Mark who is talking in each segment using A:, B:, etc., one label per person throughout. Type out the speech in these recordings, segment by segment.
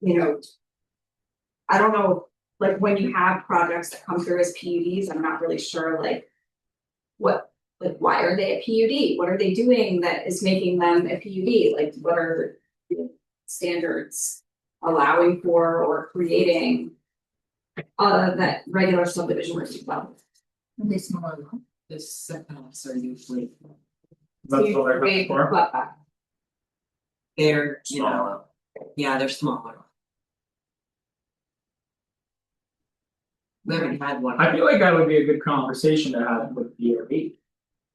A: you know. I don't know, like when you have projects that come through as PUDs, I'm not really sure like. What, like, why are they a PUD? What are they doing that is making them a PUD? Like, what are the standards allowing for or creating? Uh, that regular subdivision would be well.
B: And they smell a lot. The setbacks are usually,
C: That's what I heard
A: Big
C: before.
A: butt back.
B: they're, you know, yeah, they're smaller. We haven't had one.
C: I feel like that would be a good conversation to have with E DRB.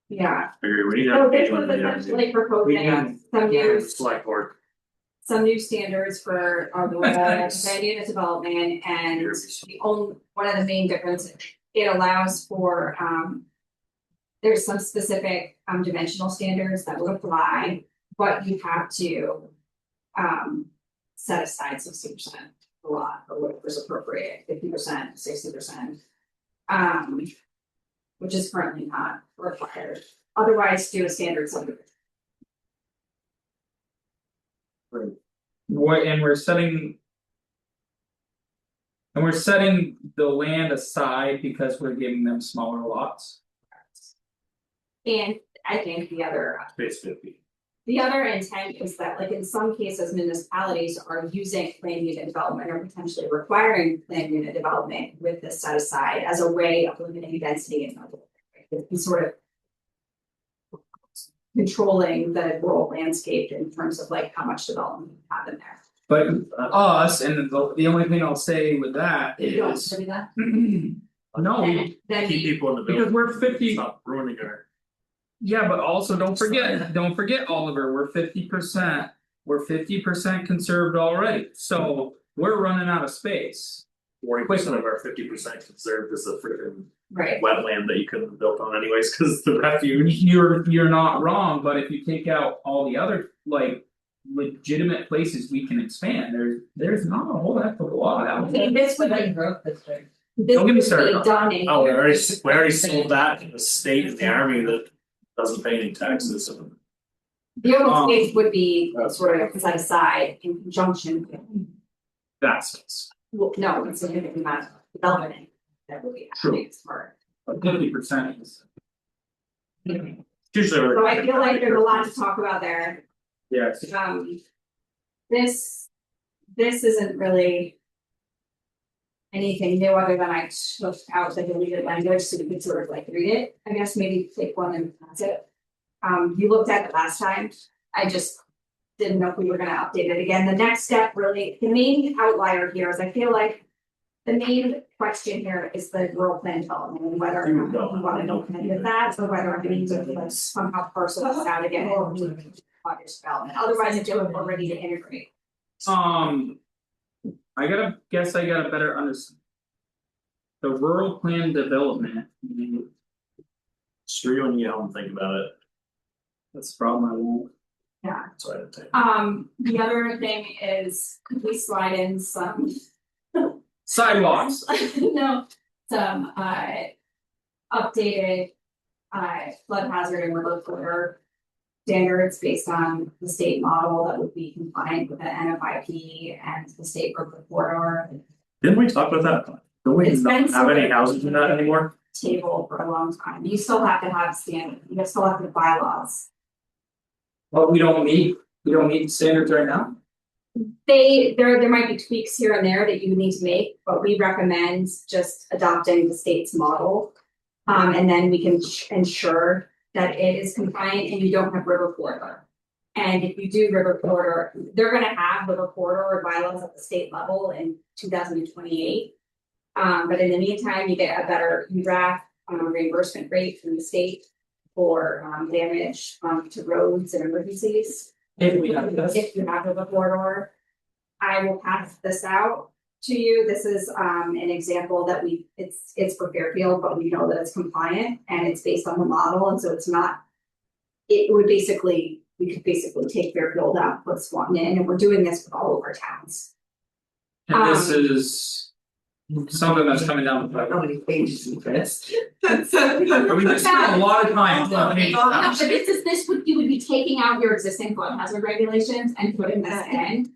A: Yeah,
D: Figure we need to
A: so
D: have
A: Oh, this
D: each one
A: was
D: of the others.
A: essentially proposing
C: can-
A: some
B: yeah.
A: new
D: Select board,
A: some new standards for Arbola land unit development
D: E
A: and the only, one of the main differences, it allows for um. There's some specific um dimensional standards that would apply, but you have to um set aside sixty percent a lot or whatever's appropriate, fifty percent, sixty percent. Um, which is currently not required, otherwise do a standard subdivision.
C: What, and we're setting. And we're setting the land aside because we're giving them smaller lots.
A: And I think the other
D: space fifty.
A: The other intent is that like in some cases municipalities are using plan unit development or potentially requiring plan unit development with this set aside as a way of limiting density in other. areas. It's sort of. Controlling the rural landscape in terms of like how much development you have in there.
C: But us, and the the only thing I'll say with that
A: You don't
C: is.
A: agree with that?
C: No, we,
A: Then- Then
D: Keep
A: you,
D: people in the
C: because
D: building,
C: we're fifty,
D: stop ruining our,
C: yeah, but also don't forget, don't forget Oliver, we're fifty percent. We're fifty percent conserved already, so we're running out of space.
D: forty percent of our fifty percent conserved as a freaking
A: right,
D: wetland that you couldn't have built on anyways, cause the refuge.
C: You're you're not wrong, but if you take out all the other like legitimate places we can expand, there's there's not a whole heck of a lot out there.
A: Okay, this would be,
B: growth district.
A: this
C: Don't get me started
A: would
C: on
A: be done in.
D: Oh, we already, s- we already sold that to the state and the army that doesn't pay any taxes, so
A: The
C: Um, uh,
A: open space would be sort of set aside in conjunction with
C: That's it's
A: Well, no, it's a significant amount of development that would be happening for.
C: fifty percent is.
D: usually. we're-
A: So I feel like there's a lot to talk about there,
C: Yeah, it's-
A: um. This, this isn't really. Anything new other than I took out the deleted language, so we could sort of like read it, I guess maybe take one and that's it. Um, you looked at it last time, I just didn't know if we were gonna update it again, the next step really, the main outlier here is I feel like. The main question here is the rural plan development, and whether or
D: You
A: not
D: don't.
A: we wanna know with that, or whether I need to like somehow parcel this out again.
B: Oh,
A: and do Project development, otherwise it's doing, we're ready to integrate.
C: Um. I gotta guess I gotta better understand. The rural plan development,
D: Screw you when you get home, think about it,
C: that's the problem I won't.
D: that's why I didn't take.
A: Um, the other thing is, could we slide in some?
C: Sidewalks,
A: No, some uh. Updated uh flood hazard and remote order. Standards based on the state model that would be compliant with the NFIP and the state urban corridor
D: Didn't we talk about that? Don't we
A: It's been
D: not have
A: so-
D: any houses in that anymore?
A: table for a long time. You still have to have standard, you still have to have bylaws.
C: but we don't need, we don't need standards right now.
A: They, there, there might be tweaks here and there that you need to make, but we recommend just adopting the state's model. Um, and then we can ch- ensure that it is compliant and you don't have river corridor. And if you do river corridor, they're gonna have river corridor bylaws at the state level in two thousand and twenty-eight. Um, but in the meantime, you get a better you draft um, reimbursement rate from the state for um, damage um, to roads and emergencies.
C: If we have this.
A: If you have a corridor. I will pass this out to you. This is um an example that we, it's it's for Fairfield, but we know that it's compliant and it's based on the model, and so it's not. It would basically, we could basically take Fairfield out, put Swanton in, and we're doing this with all of our towns.
C: And this
A: Um,
C: is something that's coming down the
B: How
C: pipe.
B: many pages is this?
C: We just spent a lot of time on page
A: But this is, this would, you would be taking out your existing flood hazard regulations and putting this in,